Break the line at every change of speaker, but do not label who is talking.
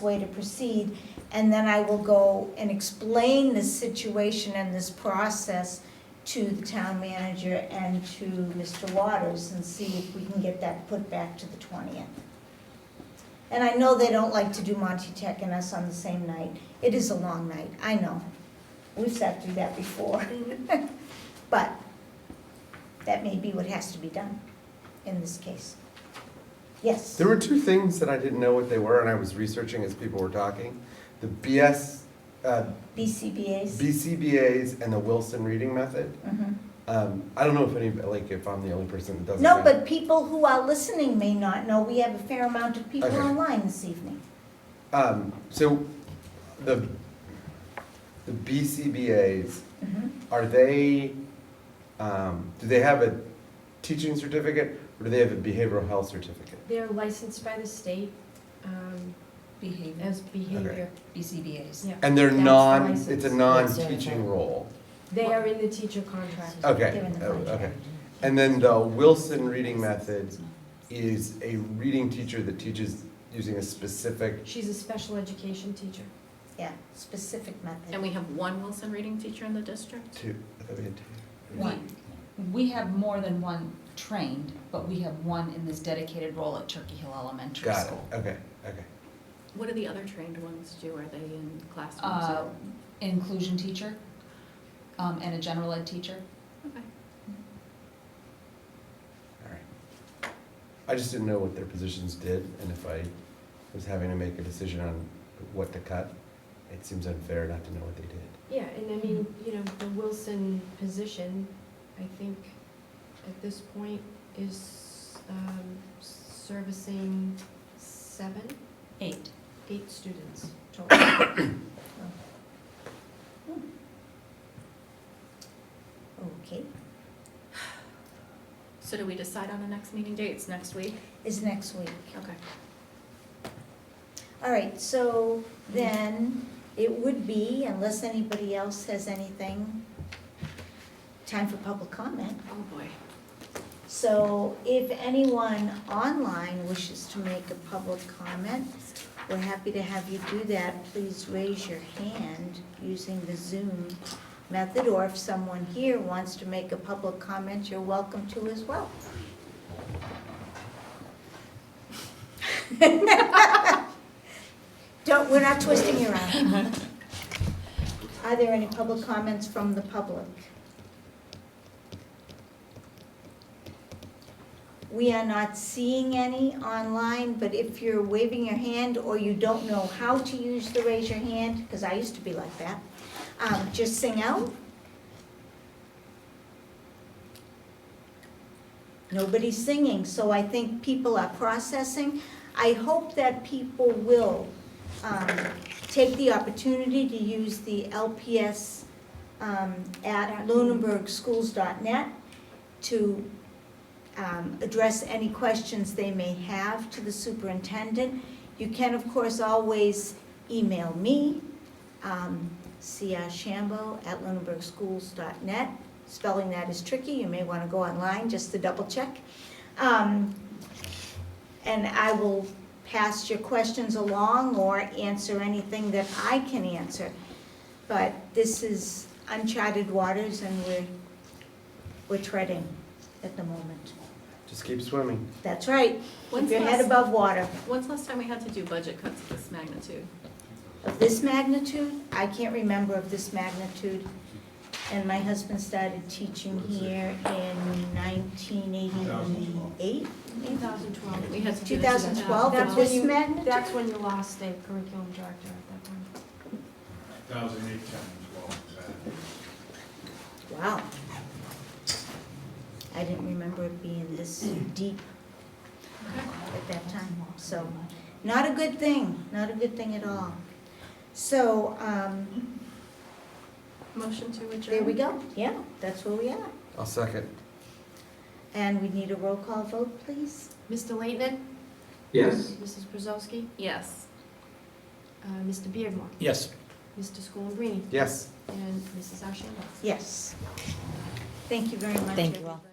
way to proceed, and then I will go and explain this situation and this process to the town manager and to Mr. Waters and see if we can get that put back to the twentieth. And I know they don't like to do Monty Tech and us on the same night. It is a long night, I know. We've sat through that before. But that may be what has to be done in this case. Yes.
There were two things that I didn't know what they were, and I was researching as people were talking. The BS, uh,
BCBA's.
BCBA's and the Wilson reading method.
Mhm.
Um, I don't know if any, like, if I'm the only person that doesn't.
No,
know.
but people who are listening may not know. We have a fair amount of people
Okay.
online this evening.
Um, so the, the BCBA's,
Mm-hmm.
Mhm.
are they, um, do they have a teaching certificate or do they have a behavioral health certificate?
They're licensed by the state um,
Mm-hmm.
behavior,
as behavior.
BCBA's.
Yeah.
And they're
That's
non,
licensed.
it's a
That's
non-teaching
certified.
role.
They are in the teacher contract.
Okay,
They're in the
oh,
contract.
okay. And then the Wilson reading method is a reading teacher that teaches using a specific,
She's a special education teacher.
Yeah, specific method.
And we have one Wilson reading teacher in the district?
two, I thought we had two.
One. We have more than one trained, but we have one in this dedicated role at Turkey Hill Elementary
Got
School.
it, okay, okay.
What do the other trained ones do? Are they in classrooms?
Uh,
or-
Inclusion teacher, um, and a general ed teacher.
Okay.
All right. I just didn't know what their positions did, and if I was having to make a decision on what to cut, it seems unfair not to know what they did.
Yeah, and I mean, you know, the Wilson position, I think, at this point, is um, servicing seven,
Eight.
eight students total.
Okay,
So do we decide on the next meeting dates next week?
is next week.
Okay.
All right, so then it would be, unless anybody else has anything, time for public comment.
Oh, boy.
So if anyone online wishes to make a public comment, we're happy to have you do that. Please raise your hand using the Zoom method, or if someone here wants to make a public comment, you're welcome to as well. Don't, we're not twisting you around. Are there any public comments from the public? We are not seeing any online, but if you're waving your hand or you don't know how to use the raise your hand, because I used to be like that, um, just sing out. Nobody's singing, so I think people are processing. I hope that people will, um, take the opportunity to use the LPS, um, at lunenburgschools.net to um, address any questions they may have to the superintendent. You can, of course, always email me, um, crchambeau@lunenburgschools.net. Spelling that is tricky, you may want to go online just to double check. Um, And I will pass your questions along or answer anything that I can answer. But this is uncharted waters and we're, we're treading at the moment.
Just keep swimming.
That's right. Keep
When's
your head
last-
above water.
When's last time we had to do budget cuts of this magnitude?
Of this magnitude, I can't remember of this magnitude. And my husband started teaching here in nineteen eighty-eight,
2012.
We had to do
two
this in
thousand twelve,
That's
of
when
this
you-
magnitude?
That's when you lost a curriculum director at that point.
thousand eight, ten, twelve, exactly.
Wow. I didn't remember it being this deep at that time, so, not a good thing, not a good thing at all. So, um,
Motion to adjourn?
there we go, yeah, that's where we are.
I'll second.
And we need a roll call vote, please?
Mr. Leighton?
Yes.
Mrs. Brzezowski?
Yes.
Uh, Mr. Beardmore?
Yes.
Mr. Schoenbrini?
Yes.
And Mrs. Ashambo?
Yes. Thank you very much.
Thank you all.
everybody.